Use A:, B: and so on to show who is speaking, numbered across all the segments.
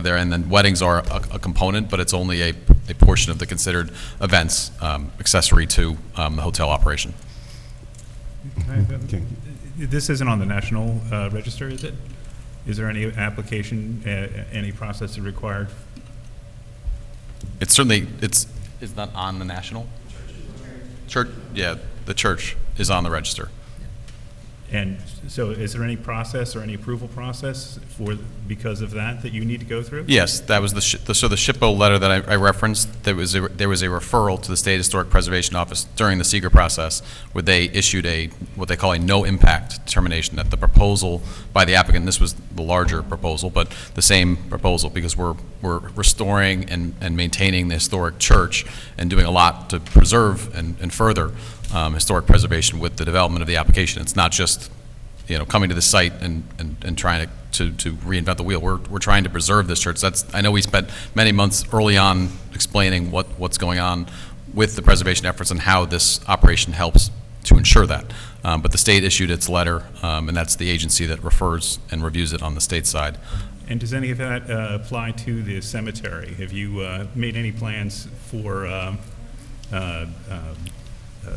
A: there, and then weddings are a, a component, but it's only a, a portion of the considered events um, accessory to um, the hotel operation.
B: I- I- This isn't on the national uh, register, is it? Is there any application, uh, any process that required?
A: It's certainly, it's, it's not on the national? Church, yeah, the church is on the register.
B: And so is there any process or any approval process for, because of that, that you need to go through?
A: Yes, that was the, shi- the- so the SHPO letter that I I referenced, there was, a- there was a referral to the State Historic Preservation Office during the seeker process, where they issued a, what they call a no-impact determination, that the proposal by the applicant, this was the larger proposal, but the same proposal, because we're, we're restoring and, and maintaining the historic church and doing a lot to preserve and, and further um, historic preservation with the development of the application. It's not just you know, coming to the site and, and, and trying to, to, to reinvent the wheel. We're, we're trying to preserve this church. That's, I know we spent many months early on explaining what, what's going on with the preservation efforts and how this operation helps to ensure that. Um, but the state issued its letter, um, and that's the agency that refers and reviews it on the state side.
B: And does any of that uh, apply to the cemetery? Have you uh, made any plans for um, uh, um, uh,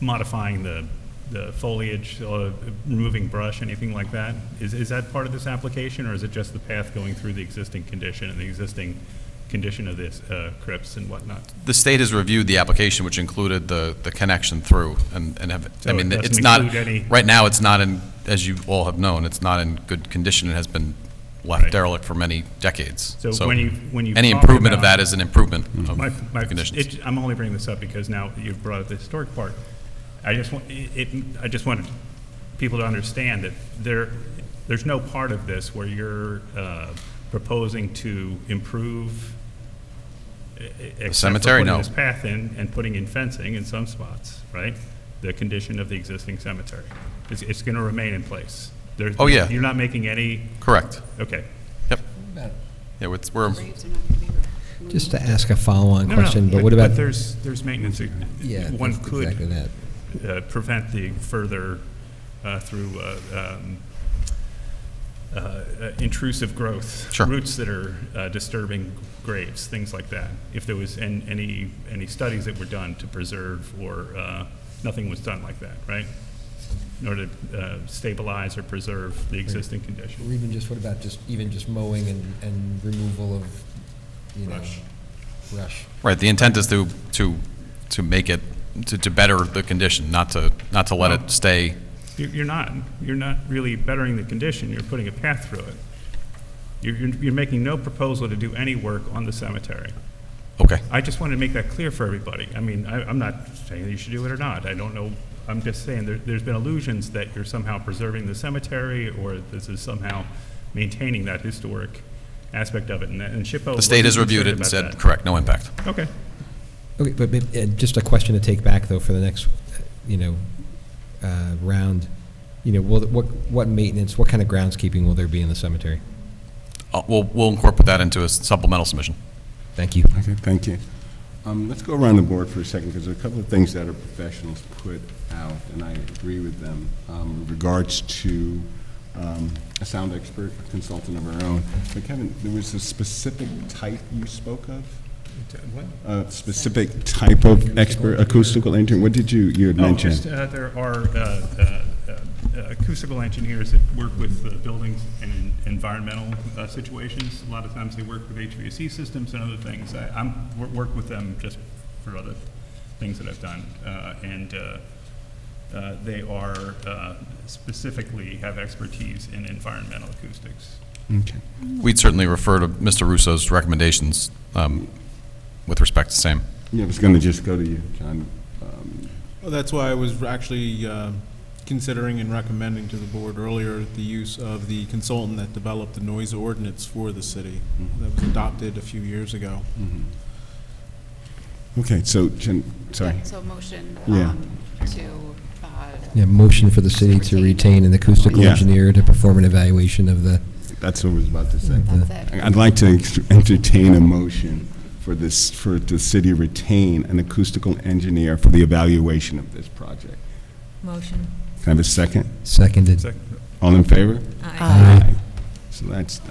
B: modifying the the foliage, uh, removing brush, anything like that? Is is that part of this application, or is it just the path going through the existing condition and the existing condition of this uh, crypts and whatnot?
A: The state has reviewed the application, which included the, the connection through, and, and have, I
B: So
A: mean,
B: it doesn't
A: it's not,
B: include any-
A: right now, it's not in, as you all have known, it's not in good condition, it has been left
B: Right.
A: derelict for many decades.
B: So when you- when you
A: Any
B: talk
A: improvement of
B: about-
A: that is an improvement of
B: My, my,
A: the conditions.
B: it, I'm only bringing this up because now you've brought up the historic part. I just want, it, it- I just wanted people to understand that there, there's no part of this where you're, uh, proposing to improve. e- e- except for
A: cemetery?
B: putting
A: No.
B: This path in and putting in fencing in some spots, right? The condition of the existing cemetery. It's, it's gonna remain in place. There's-
A: Oh, yeah.
B: You're not making any,
A: Correct,
B: okay.
A: yep. Yeah, it's, we're,
C: Graves are not going to be removed.
D: Just to ask a follow-on
B: No, no,
D: question, but what about?
B: But there's, there's maintenance.
D: Yeah,
B: One
D: that's
B: could
D: Exactly that.
B: uh, prevent the further, uh, through uh, um, uh, uh, intrusive growth.
A: Sure.
B: Roots that are uh, disturbing graves, things like that. If there was an- any, any studies that were done to preserve or, uh, nothing was done like that, right? In order to uh, stabilize or preserve the existing
D: Or
B: condition.
D: even just, what about just, even just mowing and, and removal of, you know?
B: Brush.
D: Brush.
A: right, the intent is to, to, to make it, to, to better the condition, not to, not to let it stay.
B: You- You're not, you're not really bettering the condition, you're putting a path through it. You're, you're you're making no proposal to do any work on the cemetery.
A: Okay,
B: I just wanted to make that clear for everybody. I mean, I, I'm not saying that you should do it or not. I don't know. I'm just saying there, there's been illusions that you're somehow preserving the cemetery or this is somehow maintaining that historic aspect of it. And, that- and SHPO.
A: the state
B: wasn't
A: has reviewed it and
B: concerned
A: said,
B: about
A: correct, no impact.
B: that. Okay.
D: Okay, but, maybe- and just a question to take back, though, for the next, uh, you know, uh, round. You know, will, what, what maintenance, what kind of groundskeeping will there be in the cemetery?
A: Uh, We'll, we'll incorporate that into a supplemental submission.
D: Thank you.
E: Okay, thank you. Um, Let's go around the board for a second, because there are a couple of things that our professionals put out, and I agree with them, um, with regards to um, a sound expert, a consultant of our own. But Kevin, there was a specific type you spoke of? A specific type of expert, acoustical engineer? What did you, you had
B: No,
E: mentioned?
B: just, uh, there are uh, uh, uh, acoustical engineers that work with uh, buildings and en- environmental uh, situations. A lot of times they work with HVAC systems and other things. I, I'm, wor- work with them just for other things that I've done. Uh, And uh, uh, they are uh, specifically have expertise in environmental acoustics.
E: Okay.
A: We'd certainly refer to Mr. Russo's recommendations um, with respect to same.
E: Yeah, I was going to just go to you, John. Um,
F: Well, that's why I was actually um, considering and recommending to the board earlier the use of the consultant that developed the noise ordinance for the city that was adopted a few years ago.
E: Okay, so, Jen, sorry.
C: Yeah, So motion
E: Yeah.
C: um, to, uh,
D: Yeah, motion for the city to retain an acoustical
E: Yeah.
D: engineer to perform an evaluation of the,
E: That's what I was about to say.
C: that's it.
E: I'd like to ex- entertain a motion for this, for the city retain an acoustical engineer for the evaluation of this project.
G: Motion.
E: Can I have a second?
D: seconded.
B: Second.
E: All in favor?
G: Aye.
E: So that's